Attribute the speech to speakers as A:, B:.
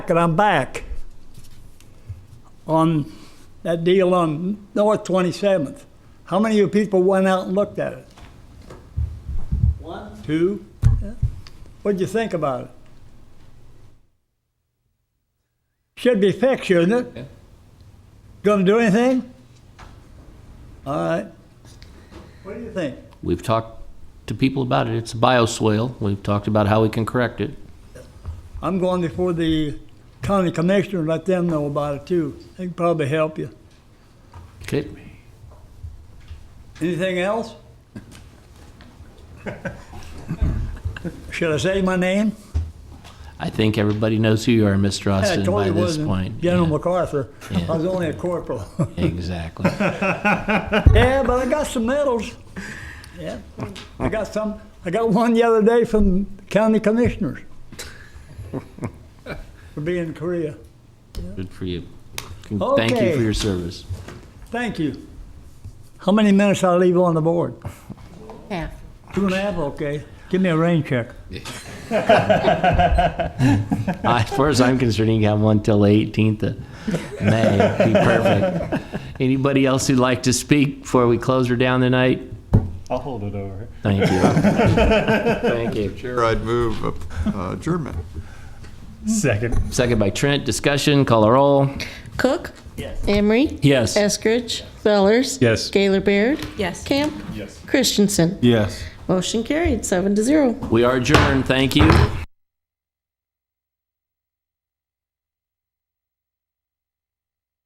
A: and I'm back on that deal on North 27th. How many of you people went out and looked at it? One, two? Yeah. What'd you think about it? Should be fixed, shouldn't it?
B: Yeah.
A: Gonna do anything? All right. What do you think?
B: We've talked to people about it. It's a bioswale. We've talked about how we can correct it.
A: I'm going before the county commissioner, and let them know about it too. They can probably help you.
B: Okay.
A: Anything else? Should I say my name?
B: I think everybody knows who you are, Mr.
A: I
B: Austin,
A: told
B: by
A: you
B: this
A: wasn't
B: point.
A: General
B: Yeah,
A: MacArthur. I was only a corporal.
B: Exactly.
A: Yeah, but I got some medals. Yeah, I got some, I got one the other day from county commissioners for being in Korea.
B: Good for you. Con- Thank you
A: Okay.
B: for your service.
A: Thank you. How many minutes I leave on the board?
C: Yeah.
A: Two and a half, okay. Give me a rain check.
B: As far as I'm concerned, you can have one till the 18th of May. Be perfect. Anybody else who'd like to speak before we close her down tonight?
D: I'll hold it over.
B: Thank you. Thank you.
E: Chair, I'd move uh, adjournment.
D: Second.
B: Second by Trent. Discussion. Call a roll.
C: Cook? Yes. Emery?
B: Yes.
C: Eskridge? Fellers?
D: Yes.
C: Gaylor Baird?
F: Yes.
C: Camp? Yes. Christensen?
D: Yes.
C: Motion carried, seven to zero.
B: We are adjourned. Thank you.